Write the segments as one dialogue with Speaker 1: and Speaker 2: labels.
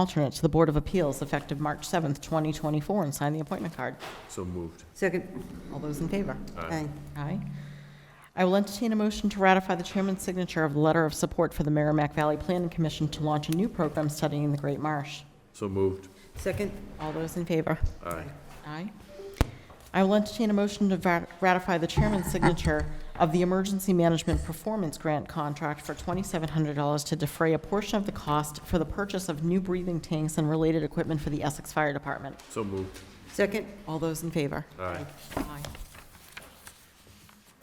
Speaker 1: alternate to the Board of Appeals effective March 7th, 2024, and sign the appointment card.
Speaker 2: So moved.
Speaker 3: Second,
Speaker 1: All those in favor?
Speaker 3: aye.
Speaker 1: Aye. I will entertain a motion to ratify the chairman's signature of the letter of support for the Merrimack Valley Planning Commission to launch a new program studying the Great Marsh.
Speaker 2: So moved.
Speaker 3: Second,
Speaker 1: All those in favor?
Speaker 2: Aye.
Speaker 1: Aye. I will entertain a motion to va- ratify the chairman's signature of the Emergency Management Performance Grant contract for $2,700 to defray a portion of the cost for the purchase of new breathing tanks and related equipment for the Essex Fire Department.
Speaker 2: So moved.
Speaker 3: second,
Speaker 1: All those in favor?
Speaker 2: Aye.
Speaker 1: Aye.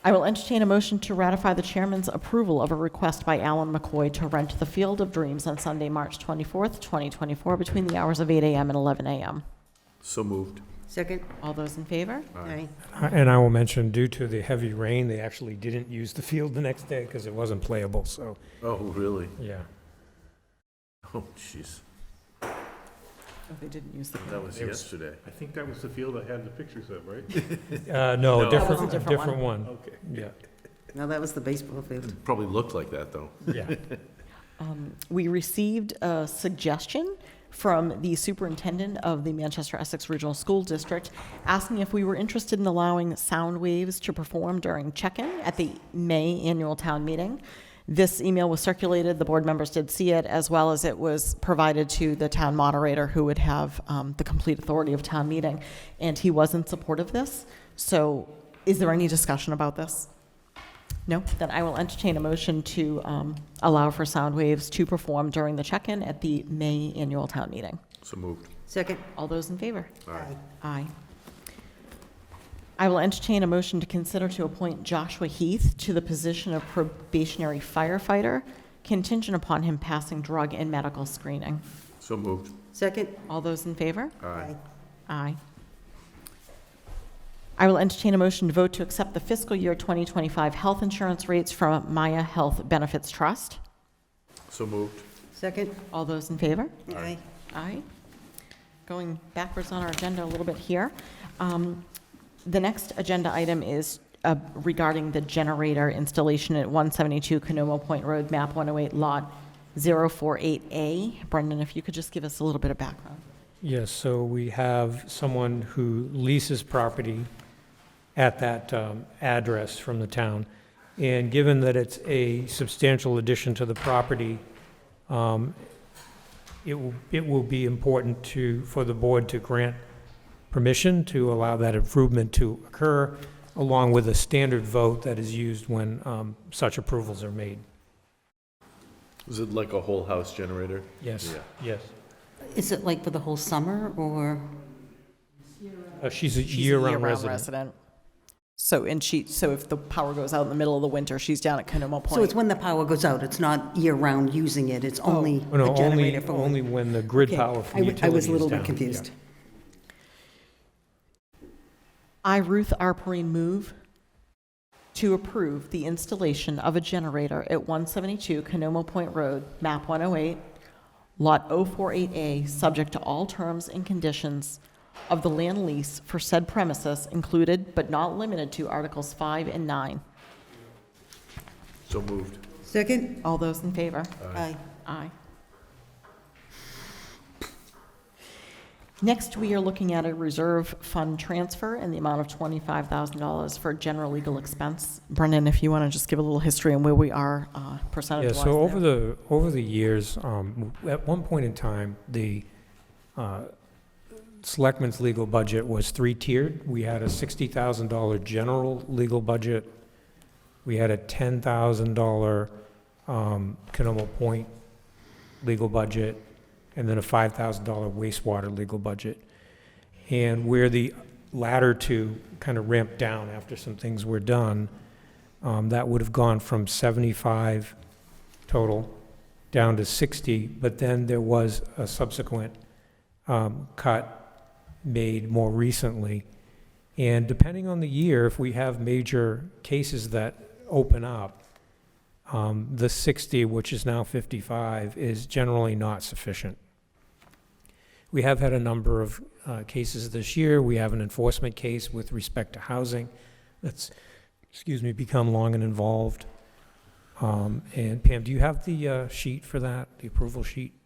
Speaker 1: I will entertain a motion to ratify the chairman's approval of a request by Alan McCoy to rent the Field of Dreams on Sunday, March 24th, 2024, between the hours of 8 a.m. and 11 a.m.
Speaker 2: So moved.
Speaker 3: second,
Speaker 1: All those in favor?
Speaker 3: aye.
Speaker 4: And I will mention, due to the heavy rain, they actually didn't use the field the next day because it wasn't playable, so,
Speaker 2: Oh, really?
Speaker 4: yeah.
Speaker 2: Oh, jeez.
Speaker 1: Oh, They didn't use the...
Speaker 2: That was
Speaker 5: It was-
Speaker 2: yesterday.
Speaker 5: I think that was the field I had the pictures of, right?
Speaker 2: No.
Speaker 4: Uh, no,
Speaker 1: was
Speaker 2: That
Speaker 1: a
Speaker 4: different,
Speaker 1: different
Speaker 4: different one,
Speaker 5: Okay.
Speaker 4: yeah,
Speaker 3: Now, that was the baseball field.
Speaker 2: Probably looked like that, though.
Speaker 4: yeah.
Speaker 1: Um, We received a suggestion from the superintendent of the Manchester Essex Regional School District asking if we were interested in allowing sound waves to perform during check-in at the May annual town meeting. This email was circulated, the board members did see it, as well as it was provided to the town moderator, who would have um, the complete authority of town meeting, and he was in support of this. So is there any discussion about this? No, then I will entertain a motion to um, allow for sound waves to perform during the check-in at the May annual town meeting.
Speaker 2: So moved.
Speaker 3: Second,
Speaker 1: All those in favor?
Speaker 2: Aye.
Speaker 1: Aye. I will entertain a motion to consider to appoint Joshua Heath to the position of probationary firefighter contingent upon him passing drug and medical screening.
Speaker 2: So moved.
Speaker 3: second,
Speaker 1: All those in favor?
Speaker 2: Aye.
Speaker 1: Aye. I will entertain a motion to vote to accept the fiscal year 2025 health insurance rates from Maya Health Benefits Trust.
Speaker 2: So moved.
Speaker 3: second,
Speaker 1: All those in favor?
Speaker 3: aye.
Speaker 1: Aye. Going backwards on our agenda a little bit here. Um, The next agenda item is uh, regarding the generator installation at 172 Canomo Point Road, MAP 108, Lot 048A. Brendan, if you could just give us a little bit of background.
Speaker 4: Yes, so we have someone who leases property at that um, address from the town. And given that it's a substantial addition to the property, um, it will, it will be important to, for the board to grant permission to allow that improvement to occur, along with a standard vote that is used when um, such approvals are made.
Speaker 2: Was it like a whole house generator?
Speaker 4: Yes,
Speaker 2: Yeah.
Speaker 4: yes.
Speaker 6: Is it like for the whole summer, or,
Speaker 4: Uh, She's a
Speaker 1: She's a
Speaker 4: year-round resident.
Speaker 1: So, and she, so if the power goes out in the middle of the winter, she's down at Canomo Point.
Speaker 6: so it's when the power goes out, it's not year-round using it, it's only
Speaker 4: Oh, No,
Speaker 6: a
Speaker 4: only,
Speaker 6: generator for one?
Speaker 4: only when the grid
Speaker 6: Okay,
Speaker 4: power
Speaker 6: I
Speaker 4: from
Speaker 6: w-
Speaker 4: utility is
Speaker 6: I was a little bit
Speaker 4: down,
Speaker 6: confused.
Speaker 4: yeah.
Speaker 1: I, Ruth Arpery, move to approve the installation of a generator at 172 Canomo Point Road, MAP 108, Lot 048A, subject to all terms and conditions of the land lease for said premises included but not limited to Articles 5 and 9.
Speaker 2: So moved.
Speaker 3: Second,
Speaker 1: All those in favor?
Speaker 3: aye.
Speaker 1: Aye. Next, we are looking at a reserve fund transfer in the amount of $25,000 for general legal expense. Brendan, if you want to just give a little history on where we are uh,
Speaker 4: Yeah,
Speaker 1: percentage-wise.
Speaker 4: so over
Speaker 1: there.
Speaker 4: the, over the years, um, at one point in time, the uh, selectmen's legal budget was three-tiered. We had a $60,000 general legal budget. We had a $10,000 um, Canomo Point legal budget, and then a $5,000 wastewater legal budget. And where the latter two kind of ramped down after some things were done, um, that would have gone from 75 total down to 60, but then there was a subsequent um, cut made more recently. And depending on the year, if we have major cases that open up, um, the 60, which is now 55, is generally not sufficient. We have had a number of uh, cases this year. We have an enforcement case with respect to housing that's, excuse me, become long and involved. Um, And Pam, do you have the uh, sheet for that, the approval sheet?